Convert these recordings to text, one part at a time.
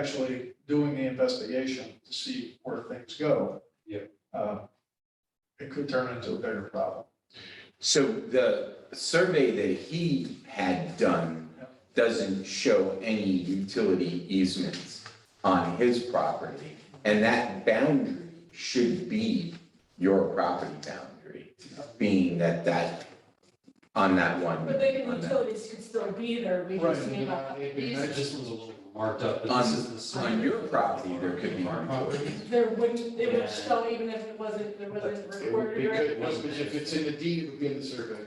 actually doing the investigation to see where things go. Yeah. uh, It could turn into a bigger problem. So the survey that he had done doesn't show any utility easements on his property. And that boundary should be your property boundary, being that that, on that one. But the on that- utilities could still be there, we just may not. This one's a little marked up, but On- this is the. On same. your property, there could be Our property. utilities. There wouldn't, it Yeah. would show even if it wasn't, there wasn't It would recorded be or good, anything. once- but if it's in the deed, it would be in the survey.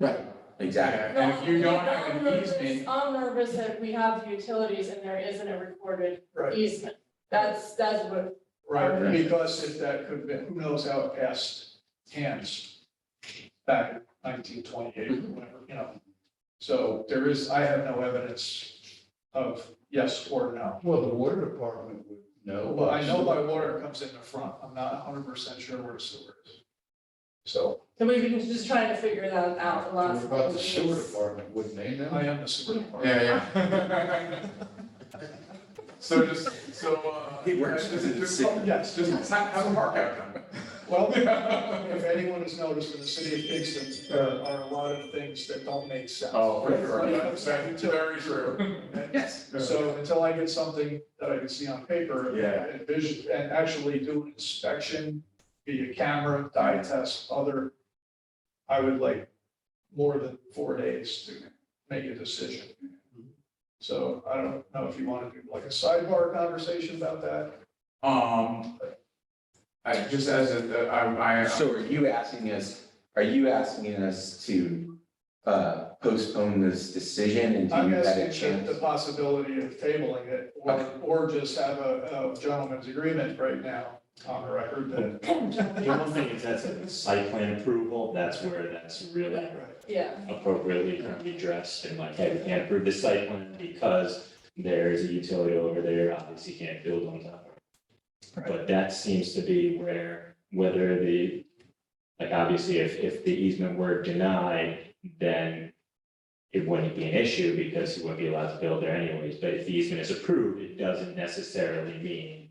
Right. Exactly. Yeah, And if you don't have I'm an nervous- easement, I'm nervous that we have utilities and there isn't a recorded Right. easement. That's, that's what, Right, Right. because if that could have been, who knows how it passed hands back in nineteen twenty-eight, Mhm. or whatever, you know. So there is, I have no evidence of yes or no. Well, the water department would know. Well, I know my water comes in the front, I'm not hundred percent sure where the sewer is. So so we've been just trying to figure that out the last. What about couple the sewer of weeks. department, wouldn't they I know? am the sewer department. Yeah, yeah. So just, so, uh. He works just- in the just- city. Yes, just have, have a mark out Well, done. if anyone has noticed in the city of Kingston, there are a lot of things that don't make sense. Oh, for sure, When it that's comes down that's to it. very true. Yes. Uh, So until I get something that I can see on paper. Yeah. And vision, and actually do an inspection via camera, dye test, other, I would like more than four days to make a decision. So I don't know if you want to do like a sidebar conversation about that. Um, I just as a, I, I, So are you asking us, are you asking us to uh, postpone this decision and do I'm you have a asking chance? the possibility of tabling it or, Okay. or just have a a gentleman's agreement right now on the record that. The one thing is that's a site plan approval, that's where that's really Yeah. appropriately gonna be addressed and like, hey, we can't approve the site plan because there's a utility over there, obviously you can't build on top of it. But that seems to be where, whether the, like, obviously if, if the easement were denied, then it wouldn't be an issue because he wouldn't be allowed to build there anyways, but if the easement is approved, it doesn't necessarily mean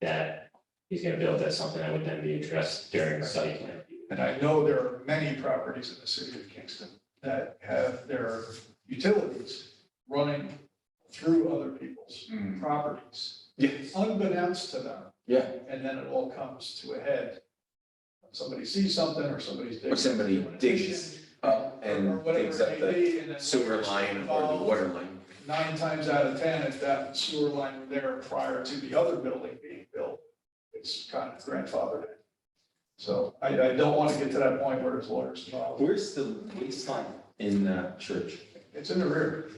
that he's gonna build that something that would then be addressed during site plan. review. And I know there are many properties in the city of Kingston that have their utilities running through other people's Mm. properties, Yes. unbeknownst to them. Hmm. Yeah. And then it all comes to a head. Somebody sees something or somebody's digging. Or somebody doing an addition, digs up or and whatever digs it up may the be, and then sewer whatever's line or the involved, water line. Nine times out of 10, if that sewer line were there prior to the other building being built, it's kind of grandfathered. in. So I, I don't want to get to that point where there's lawyers involved. Where's the waistline in the church? It's in the rear.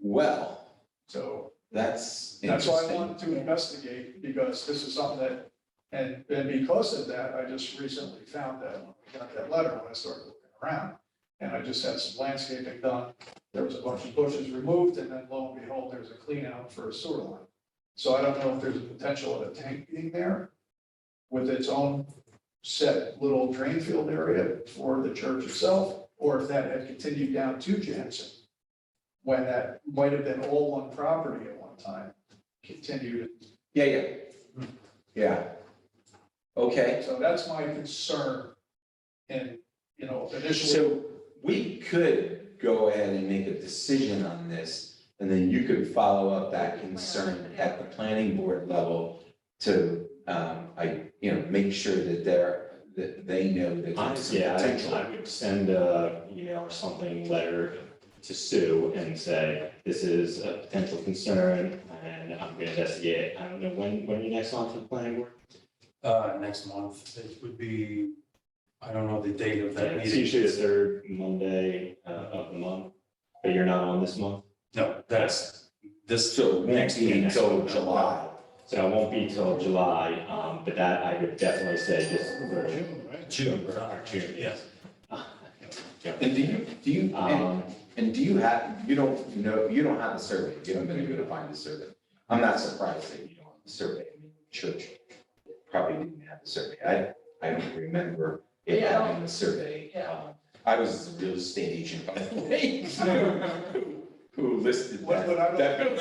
Well, So that's that's why I interesting. wanted to investigate, because this is something that, and, and because of that, I just recently found that, when I got that letter when I started looking around. And I just had some landscaping done, there was a bunch of bushes removed, and then lo and behold, there's a clean out for a sewer line. So I don't know if there's a potential of a tank being there with its own set little drain field area for the church itself, or if that had continued down to Jansen when that might have been all one property at one time, continued. Yeah, yeah. Yeah. Okay, So that's my concern in, you know, initially. so we could go ahead and make a decision on this, and then you could follow up that concern at the planning board level to, um, I, you know, make sure that they're, that they know that there's some Honestly, I potential. I would send a email or something, letter to Sue and say, this is a potential concern and I'm gonna investigate. it." I don't know, when, when are you next on for the planning board? Uh, next month, it would be, I don't know the date of that It's meeting. usually the third Monday uh, of the month, but you're not on this month. No, that's this. So it won't Next be meeting. until July. So it won't be till July, um, but that I would definitely say just Or for June, right? June, or June, yes. And do you, do you, and, Um, and do you have, you don't know, you don't have the survey, you haven't been able to find the survey. I'm not surprised that you don't have the survey, I mean, church probably didn't have the survey, I, I don't remember it Yeah. having the survey. Yeah. Um, I was a real estate agent, by the way. Who- who listed What- that, what I don't- that building.